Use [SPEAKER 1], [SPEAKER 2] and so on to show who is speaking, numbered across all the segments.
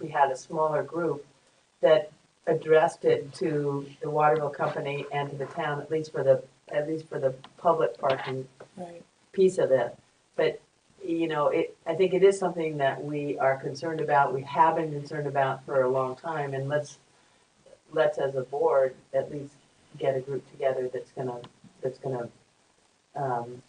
[SPEAKER 1] we had a smaller group that addressed it to the Waterville Company and to the town, at least for the, at least for the public parking
[SPEAKER 2] Right.
[SPEAKER 1] piece of it. But, you know, it, I think it is something that we are concerned about, we have been concerned about for a long time, and let's, let's as a board, at least get a group together that's gonna, that's gonna, um,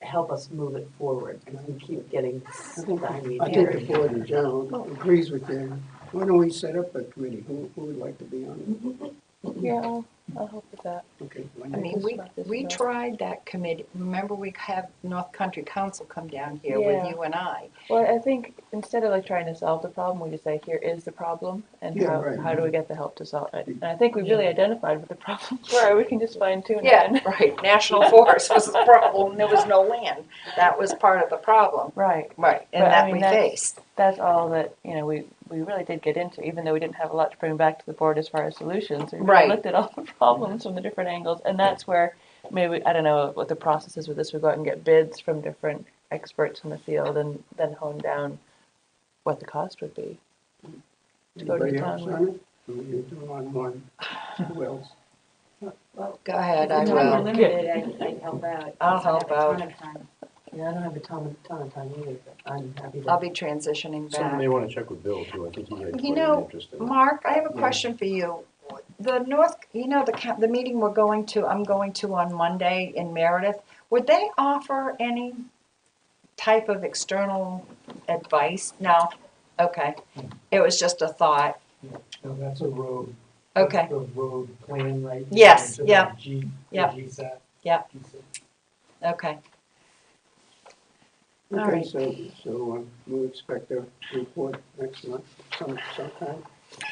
[SPEAKER 1] help us move it forward, because we keep getting stymied
[SPEAKER 3] I think
[SPEAKER 1] here.
[SPEAKER 3] the board in general agrees with you. Why don't we set up a committee? Who, who would like to be on
[SPEAKER 2] Yeah, I'll, I'll help with that.
[SPEAKER 3] it? Okay. why
[SPEAKER 4] I
[SPEAKER 3] not?
[SPEAKER 4] mean, we,
[SPEAKER 2] Just like
[SPEAKER 4] we
[SPEAKER 2] this, uh,
[SPEAKER 4] tried that committee, remember we had North Country Council come down here with
[SPEAKER 2] Yeah.
[SPEAKER 4] you and I?
[SPEAKER 2] Well, I think instead of like trying to solve the problem, we just say, here is the problem and
[SPEAKER 3] Yeah,
[SPEAKER 2] how,
[SPEAKER 3] right.
[SPEAKER 2] how do we get the help to solve it? And I think we've really identified what the problems were. We can just fine tune it.
[SPEAKER 4] right, national forest was the problem, there was no land, that was part of the problem.
[SPEAKER 2] Right.
[SPEAKER 4] Right, and
[SPEAKER 2] But, I
[SPEAKER 4] that
[SPEAKER 2] mean,
[SPEAKER 4] we
[SPEAKER 2] that's-
[SPEAKER 4] faced.
[SPEAKER 2] That's all that, you know, we, we really did get into, even though we didn't have a lot to bring back to the board as far as solutions. We really
[SPEAKER 4] Right.
[SPEAKER 2] looked at all the problems from the different angles. And that's where maybe, I don't know what the process is with this. We go out and get bids from different experts in the field and then hone down what the cost would be. to go to
[SPEAKER 3] Anybody
[SPEAKER 2] town
[SPEAKER 3] else
[SPEAKER 2] with.
[SPEAKER 3] on it? Or you do on one? Who else?
[SPEAKER 1] Well,
[SPEAKER 4] Go ahead, I
[SPEAKER 2] If you're
[SPEAKER 4] will.
[SPEAKER 1] I, I help out.
[SPEAKER 4] I'll help out.
[SPEAKER 1] Yeah, I don't have a ton, of- ton of time either, but I'm happy to.
[SPEAKER 4] I'll be transitioning
[SPEAKER 5] Something
[SPEAKER 4] back.
[SPEAKER 5] they want to check with Bill too, I think he had
[SPEAKER 4] You
[SPEAKER 5] quite
[SPEAKER 4] know,
[SPEAKER 2] Oh.
[SPEAKER 5] an interest in.
[SPEAKER 4] Mark, I have a
[SPEAKER 5] Yeah.
[SPEAKER 4] question for you. The North, you know, the, ca- the meeting we're going to, I'm going to on Monday in Meredith, would they offer any type of external advice? No? Okay. It was just a thought.
[SPEAKER 6] No, that's a road.
[SPEAKER 4] Okay.
[SPEAKER 6] That's the road plan right?
[SPEAKER 4] Yes,
[SPEAKER 6] there,
[SPEAKER 4] yeah,
[SPEAKER 6] the G, the
[SPEAKER 4] yeah.
[SPEAKER 6] GSAP.
[SPEAKER 4] Yeah. Okay. All
[SPEAKER 3] Okay,
[SPEAKER 4] right.
[SPEAKER 3] so, so uh, we expect a report next month, some, sometime?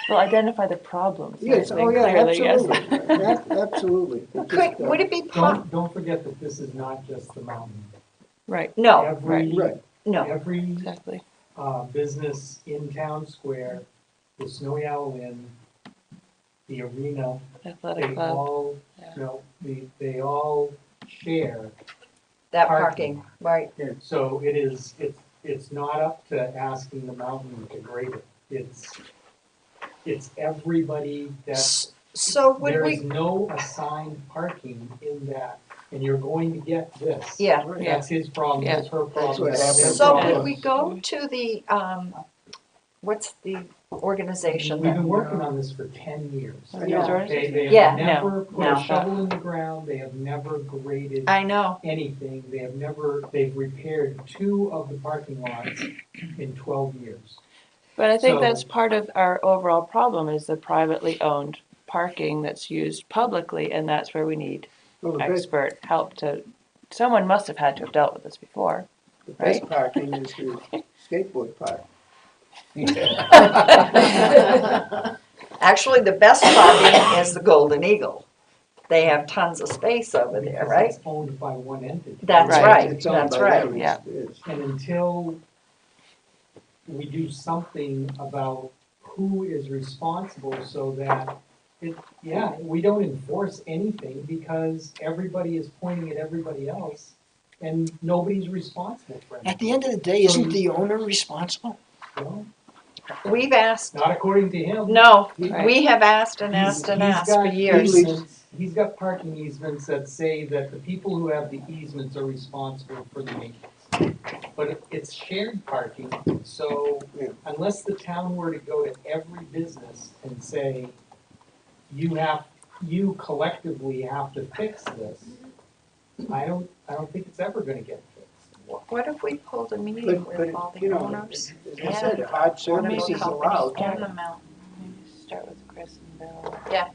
[SPEAKER 2] Well, identify the problems.
[SPEAKER 3] Yes,
[SPEAKER 2] I think,
[SPEAKER 3] oh yeah,
[SPEAKER 2] clearly, yes.
[SPEAKER 3] absolutely. Ab- Absolutely. It
[SPEAKER 4] Could,
[SPEAKER 3] just, uh,
[SPEAKER 4] would it be, po-
[SPEAKER 6] Don't, don't forget that this is not just the mountain.
[SPEAKER 2] Right,
[SPEAKER 4] no,
[SPEAKER 6] Every,
[SPEAKER 3] Right,
[SPEAKER 4] no,
[SPEAKER 6] every,
[SPEAKER 2] exactly.
[SPEAKER 6] uh, business in town square, the Snowy Owl Inn, the arena,
[SPEAKER 2] Athletic
[SPEAKER 6] they
[SPEAKER 2] club.
[SPEAKER 6] all,
[SPEAKER 2] yeah.
[SPEAKER 6] no, they, they all share.
[SPEAKER 4] that
[SPEAKER 6] Parking.
[SPEAKER 4] parking, right.
[SPEAKER 6] So it is, it's, it's not up to asking the mountain to grade it. It's, it's everybody that's
[SPEAKER 4] S- So would
[SPEAKER 6] There is
[SPEAKER 4] we,
[SPEAKER 6] no assigned parking in that, and you're going to get this.
[SPEAKER 4] yeah.
[SPEAKER 2] Yeah.
[SPEAKER 6] That's his problem,
[SPEAKER 2] Yeah.
[SPEAKER 6] that's her
[SPEAKER 3] That's
[SPEAKER 6] problem.
[SPEAKER 3] what
[SPEAKER 6] that's their
[SPEAKER 3] happened.
[SPEAKER 4] So
[SPEAKER 6] problem.
[SPEAKER 4] would we go to the, um, what's the organization
[SPEAKER 6] We've
[SPEAKER 4] that?
[SPEAKER 6] been working on this for ten years.
[SPEAKER 2] Oh,
[SPEAKER 3] yeah.
[SPEAKER 6] They, they
[SPEAKER 4] Yeah.
[SPEAKER 6] have never put
[SPEAKER 4] no.
[SPEAKER 6] a shovel in the ground, they have never graded
[SPEAKER 4] I know,
[SPEAKER 6] anything, they have never, they've repaired two of the parking lots in twelve years.
[SPEAKER 2] But I think
[SPEAKER 6] So-
[SPEAKER 2] that's part of our overall problem is the privately owned parking that's used publicly, and that's where we need
[SPEAKER 3] well, the best,
[SPEAKER 2] expert help to, someone must have had to have dealt with this before.
[SPEAKER 3] the best parking is the skateboard park.
[SPEAKER 4] Actually, the best parking is the Golden Eagle. They have tons of space over there,
[SPEAKER 6] because
[SPEAKER 4] right?
[SPEAKER 6] it's Owned by one entity.
[SPEAKER 4] That's
[SPEAKER 2] Right.
[SPEAKER 4] right,
[SPEAKER 3] It's owned
[SPEAKER 4] that's
[SPEAKER 3] by
[SPEAKER 4] right.
[SPEAKER 3] them,
[SPEAKER 2] yeah.
[SPEAKER 3] it is.
[SPEAKER 6] And until we do something about who is responsible so that it, yeah, we don't enforce anything because everybody is pointing at everybody else and nobody's responsible for
[SPEAKER 7] At
[SPEAKER 6] it.
[SPEAKER 7] the end of the day, isn't the owner responsible?
[SPEAKER 6] Well,
[SPEAKER 4] We've asked,
[SPEAKER 6] Not according to him.
[SPEAKER 4] no,
[SPEAKER 2] Right.
[SPEAKER 4] we have asked and asked and
[SPEAKER 6] He's- he's
[SPEAKER 4] asked for
[SPEAKER 6] got
[SPEAKER 4] years.
[SPEAKER 6] easements- He's got parking easements that say that the people who have the easements are responsible for the maintenance. But it- it's shared parking, so
[SPEAKER 3] Yeah.
[SPEAKER 6] unless the town were to go to every business and say, you have, you collectively have to fix this, I don't, I don't think it's ever gonna get fixed.
[SPEAKER 4] What if we pulled a meeting
[SPEAKER 3] But,
[SPEAKER 4] with all
[SPEAKER 3] but, you
[SPEAKER 4] the
[SPEAKER 3] know,
[SPEAKER 4] owners?
[SPEAKER 3] as I said, hard service is allowed.
[SPEAKER 4] On the mountain,
[SPEAKER 2] Start with Chris and Bill.
[SPEAKER 4] Yeah.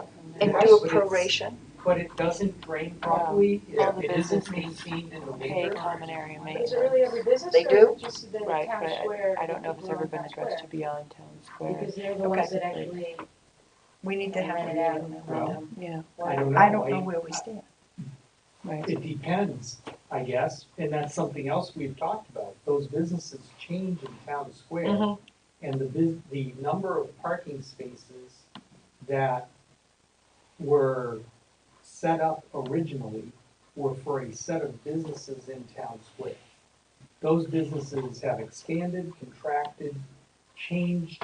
[SPEAKER 2] And
[SPEAKER 4] and
[SPEAKER 6] Yes,
[SPEAKER 4] do a
[SPEAKER 6] but it's-
[SPEAKER 4] proration.
[SPEAKER 6] But it doesn't drain properly,
[SPEAKER 2] All
[SPEAKER 6] if
[SPEAKER 2] the
[SPEAKER 6] it isn't
[SPEAKER 2] businesses
[SPEAKER 6] maintained in the
[SPEAKER 2] pay
[SPEAKER 6] winter.
[SPEAKER 2] common area
[SPEAKER 8] Is it really
[SPEAKER 2] maintenance.
[SPEAKER 8] every business?
[SPEAKER 4] They
[SPEAKER 8] or
[SPEAKER 4] do?
[SPEAKER 8] is it just the
[SPEAKER 2] Right,
[SPEAKER 8] town
[SPEAKER 2] but I-
[SPEAKER 8] square,
[SPEAKER 2] I don't know if
[SPEAKER 8] the
[SPEAKER 2] it's
[SPEAKER 8] people
[SPEAKER 2] ever
[SPEAKER 8] on
[SPEAKER 2] been
[SPEAKER 8] town
[SPEAKER 2] addressed to
[SPEAKER 8] square?
[SPEAKER 2] beyond town square.
[SPEAKER 8] Because they're the ones
[SPEAKER 4] Okay.
[SPEAKER 8] that actually.
[SPEAKER 4] We need to have a meeting with them.
[SPEAKER 2] Yeah,
[SPEAKER 6] I don't know.
[SPEAKER 4] I don't know where we stand.
[SPEAKER 2] right.
[SPEAKER 6] It depends, I guess, and that's something else we've talked about. Those businesses change in town square.
[SPEAKER 4] Mhm.
[SPEAKER 6] And the bus the number of parking spaces that were set up originally were for a set of businesses in town square. Those businesses have expanded, contracted, change